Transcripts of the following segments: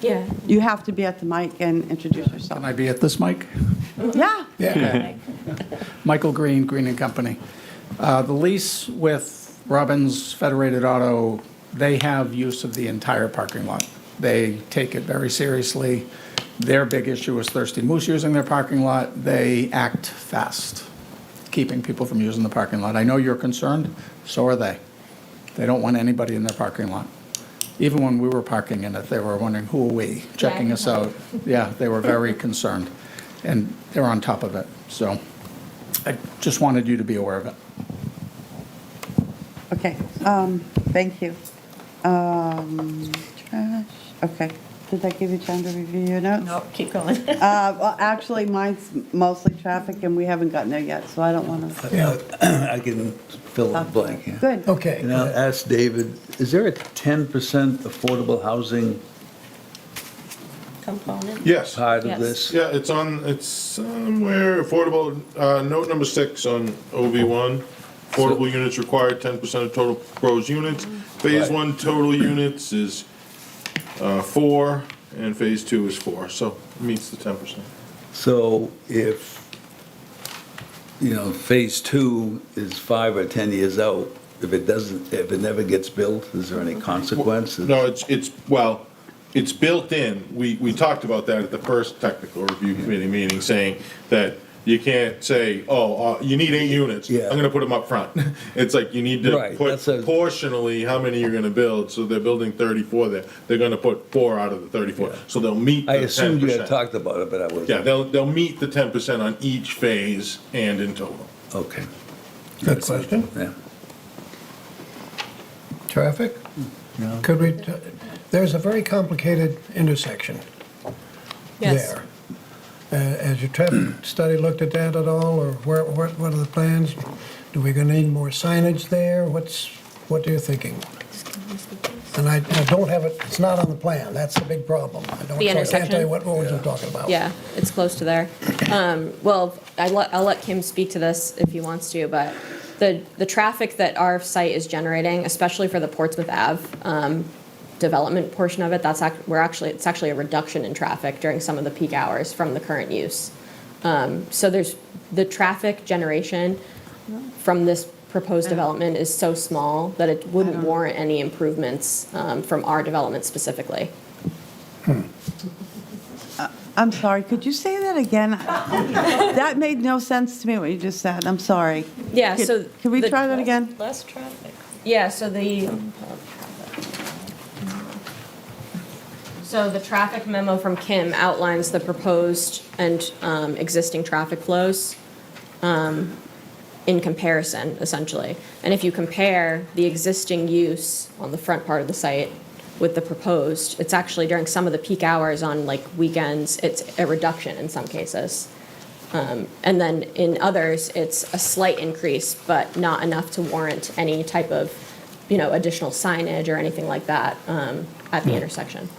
Yeah. You have to be at the mic and introduce Can yourself. I be at this mic? Yeah. Yeah. Michael Green, Green and Company. Uh, The lease with Robbins Federated Auto, they have use of the entire parking lot. They take it very seriously. Their big issue is Thirsty Moose using their parking lot. They act fast, keeping people from using the parking lot. I know you're concerned, so are they. They don't want anybody in their parking lot. Even when we were parking in it, they were wondering, who are we, checking us out? Yeah, they were very concerned, and they're on top of it. So I just wanted you to be aware of it. Okay, um, thank you. Um, trash, okay. Did that give you time to review your notes? No, keep going. Uh, well, actually, mine's mostly traffic and we haven't gotten there yet, so I don't want to. I can fill in the blank. yeah. Good. Okay. And I'll ask David, is there a 10% affordable housing Component? Yes. part of Yes. this? Yeah, it's on, it's somewhere affordable, uh, note number six on OV1. Affordable units required ten percent of total proposed units. Phase Right. one total units is, uh, four, and phase two is four, so it meets the ten percent. So if, you know, phase two is five or 10 years out, if it doesn't, if it never gets built, is there any consequences? No, it's, it's, well, it's built in. We, we talked about that at the first technical review committee meeting, saying that you can't say, oh, uh, you need eight units. Yeah. I'm gonna put them up front. It's like, you need to Right, put that's a- proportionally how many you're gonna build, so they're building thirty-four there. They're gonna put four out of the thirty-four, so they'll meet I the ten assumed you had percent. talked about it, but I wasn't. Yeah, they'll, they'll meet the ten percent on each phase and in total. Okay, Good question. yeah. Traffic? Could we, there's a very complicated intersection Yes. there. Uh, Has your traffic study looked at that at all, or where, what what are the plans? Do we gonna need more signage there? What's, what are you thinking? And I I don't have it, it's not on the plan, that's the big problem. I don't- The so I can't tell you intersection? what roads we're talking about. Yeah, it's close to there. Um, Well, I let- I'll let Kim speak to this if he wants to, but the, the traffic that our site is generating, especially for the Portsmouth Ave um, development portion of it, that's, act- we're actually, it's actually a reduction in traffic during some of the peak hours from the current use. Um, So there's, the traffic generation from this proposed development is so small that it wouldn't warrant any improvements um, from our development specifically. I'm sorry, could you say that again? That made no sense to me, what you just said. I'm sorry. Yeah, Could- so Could we the- try that again? Less traffic. Yeah, so the. So the traffic memo from Kim outlines the proposed and um, existing traffic flows um, in comparison, essentially. And if you compare the existing use on the front part of the site with the proposed, it's actually during some of the peak hours on like weekends, it's a reduction in some cases. And then in others, it's a slight increase, but not enough to warrant any type of, you know, additional signage or anything like that um, at the intersection.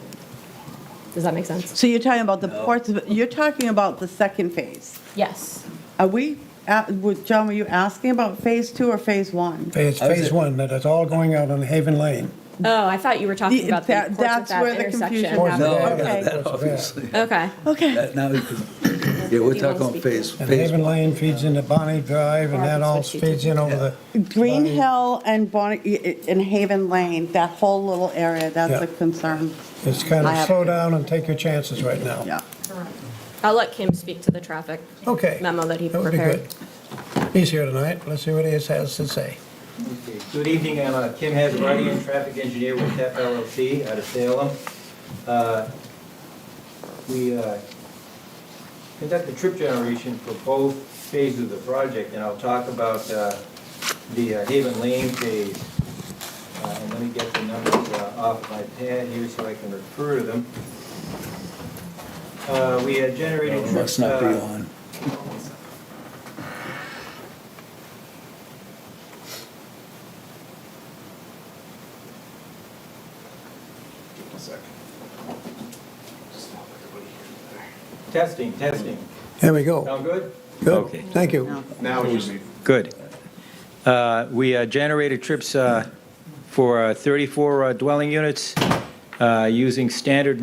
Does that make sense? So you're talking about the ports, you're talking about the second phase. Yes. Are we, at- would- John, were you asking about phase two or phase one? Phase, phase one, that it's all going out on Haven Lane. Oh, I thought you were talking The- about the that- that's Portsmouth where Ave the intersection. confusion No, No, I I happened. got Okay. that, obviously. Okay, Okay, That- Now, you can- yeah, we're talking about phase, And phase Haven one. Lane feeds into Bonnie Drive, and that all feeds in over the. Green Bonnie- Hill and Bonnie, and Haven Lane, that whole little area, that's Yeah. a concern. It's kind I of have- slow down and take your chances right now. Yeah. I'll let Kim speak to the traffic. Okay. Memo that he would be prepared. good. He's here tonight, let's see what he has to say. Good evening, I'm uh, Kim Hazabrady, I'm traffic engineer with TEP LLC out of Salem. Uh, We uh, conduct the trip generation for both phases of the project, and I'll talk about uh, the uh, Haven Lane phase. Uh, And let me get the numbers uh, off my pad here so I can refer to them. Uh, We had generated It trips... Must not be uh, on. Testing, testing. There we go. Sound good? Good, Okay. thank you. Now Good. Uh, We uh, generated trips uh, for uh, 34 uh, dwelling units uh, using standard